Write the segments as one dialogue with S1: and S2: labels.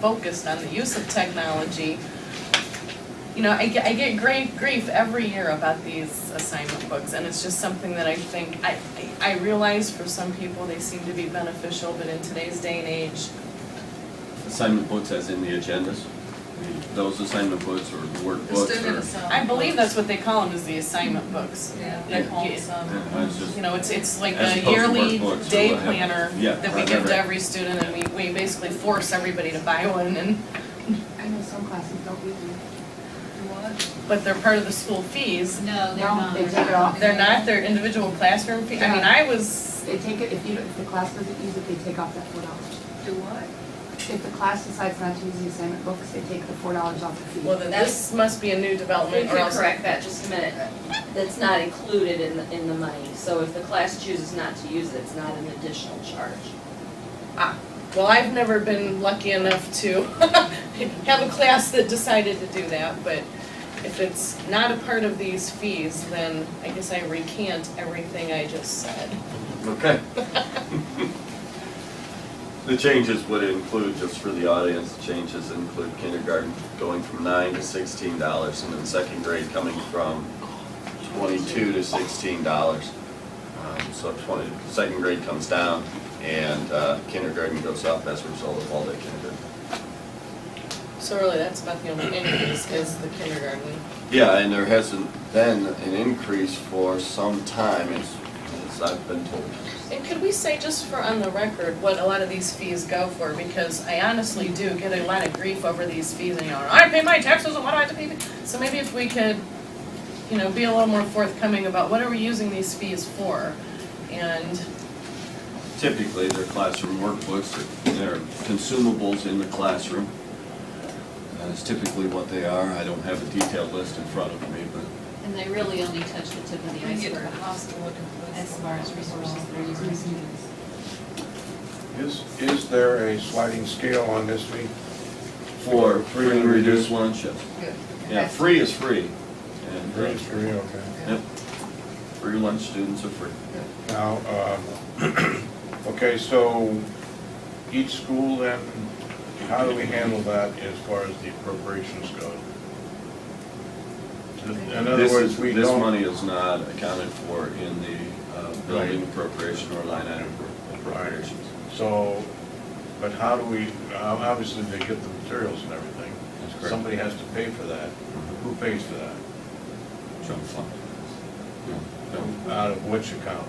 S1: focused on the use of technology. You know, I get, I get great grief every year about these assignment books, and it's just something that I think, I, I I realize for some people, they seem to be beneficial, but in today's day and age,
S2: Assignment books as in the agendas? Those assignment books or workbooks or?
S1: I believe that's what they call them, is the assignment books.
S3: Um, Yeah.
S1: Like,
S3: Call
S1: you-
S3: it some.
S2: Yeah, I was just-
S1: You know, it's, it's like
S2: As
S1: a
S2: opposed to
S1: yearly
S2: workbooks or
S1: day
S2: what have you.
S1: planner
S2: Yeah,
S1: that we
S2: right,
S1: give
S2: right,
S1: to
S2: right.
S1: every student, and we, we basically force everybody to buy one, and,
S4: I know some classes don't really.
S3: What?
S1: but they're part of the school fees.
S3: No, they're
S4: No,
S3: not.
S4: they took it off.
S1: They're not, their individual classroom fee, I mean, I was,
S4: They take it, if you, if the class doesn't use it, they take off that four dollars.
S3: Do what?
S4: If the class decides not to use the assignment books, they take the four dollars off the fee.
S1: well, then this must be a new
S5: We
S1: development, or
S5: can
S1: else.
S5: correct that just a minute. That's not included in the, in the money. So if the class chooses not to use it, it's not an additional charge.
S1: Well, I've never been lucky enough to have a class that decided to do that, but if it's not a part of these fees, then I guess I recant everything I just said.
S2: Okay. The changes would include, just for the audience, the changes include kindergarten going from nine to sixteen dollars and then second grade coming from twenty-two to sixteen dollars. Um, So twenty, second grade comes down and uh, kindergarten goes up as a result of all day kindergarten.
S1: So really, that's about the only increase is the kindergarten.
S2: Yeah, and there hasn't been an increase for some time, as, as I've been told.
S1: And could we say, just for on the record, what a lot of these fees go for? Because I honestly do get a lot of grief over these fees, and you know, I pay my taxes, and why do I have to pay? the-" So maybe if we could, you know, be a little more forthcoming about what are we using these fees for? And
S2: Typically, they're classroom workbooks, they're consumables in the classroom. That's typically what they are, I don't have a detailed list in front of me, but
S6: And they really only touch the tip of the
S3: I get to the
S6: iceberg
S3: hospital looking for
S6: as far as resources they're using for students.
S7: Is, is there a sliding scale on this fee?
S2: for free and reduced lunch, yes.
S3: Good.
S2: yeah, free is free. and, uh,
S7: Raise three, okay.
S2: Yep, free lunch students are free.
S7: Now, um, okay, so each school then, how do we handle that as far as the appropriations go? In other
S2: This-
S7: words, we
S2: This
S7: don't,
S2: money is not accounted for in the uh, building appropriation or line item appropriations.
S7: so, but how do we, ob- obviously they get the materials and everything.
S2: That's correct. Mm-hmm.
S7: Somebody has to pay for that. Who pays for that?
S2: Jump fund. No,
S7: Out of which account?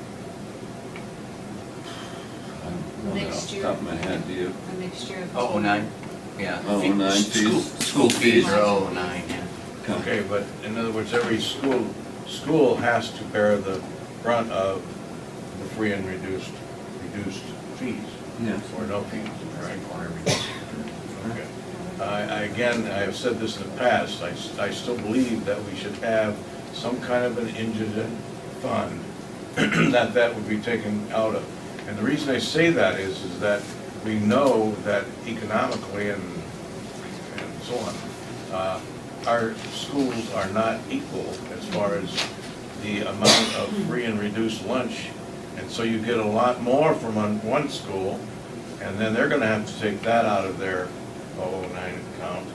S2: I don't know
S6: Next
S2: off the
S6: year.
S2: Top of my head, do you?
S6: A mixture of.
S8: Oh, oh nine, yeah.
S2: Oh, oh, nine
S8: School-
S2: fees.
S8: School fees are oh, nine, yeah.
S2: Okay.
S7: Okay, but in other words, every school, school has to bear the brunt of the free and reduced, reduced fees.
S2: Yes.
S7: Or no fees, right? Okay. I, I, again, I have said this in the past, I, s- I still believe that we should have some kind of an indigent fund that that would be taken out of. And the reason I say that is, is that we know that economically and and so on. Uh, Our schools are not equal as far as the amount of free and reduced lunch. And so you get a lot more from on- one school, and then they're gonna have to take that out of their 009 account.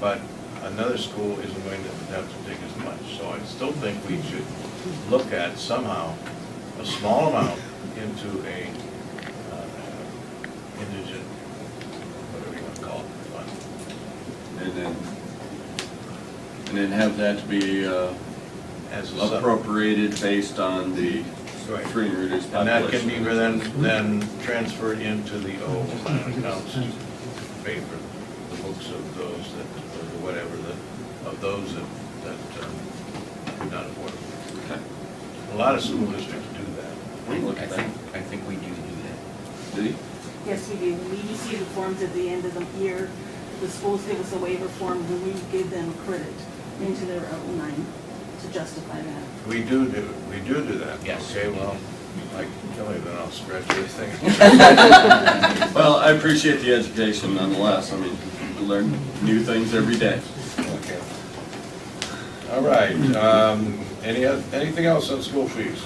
S7: But another school isn't going to have to take as much. So I still think we should look at somehow a small amount into a uh, indigent, whatever you wanna call it, fund.
S2: And then, and then have that be uh,
S7: as a sub.
S2: appropriated based on the
S7: Right.
S2: free and reduced population.
S7: And that can be then, then transferred into the old accounts to pay for the books of those that, or whatever, the, of those that, that um, do not afford. it.
S2: Okay.
S7: A lot of school districts do that.
S2: We can look at
S8: I
S2: that.
S8: think, I think we do do
S2: Did he?
S9: Yes, we do. We issue the forms at the end of the year. The schools give us a waiver form, and we give them credit into their own line to justify that.
S7: We do do, we do do that.
S8: Yes.
S7: Okay, well, like Kelly, then I'll scratch everything.
S2: Well, I appreciate the education nonetheless. I mean, we learn new things every day.
S7: All right, um, any, oth- anything else on school fees?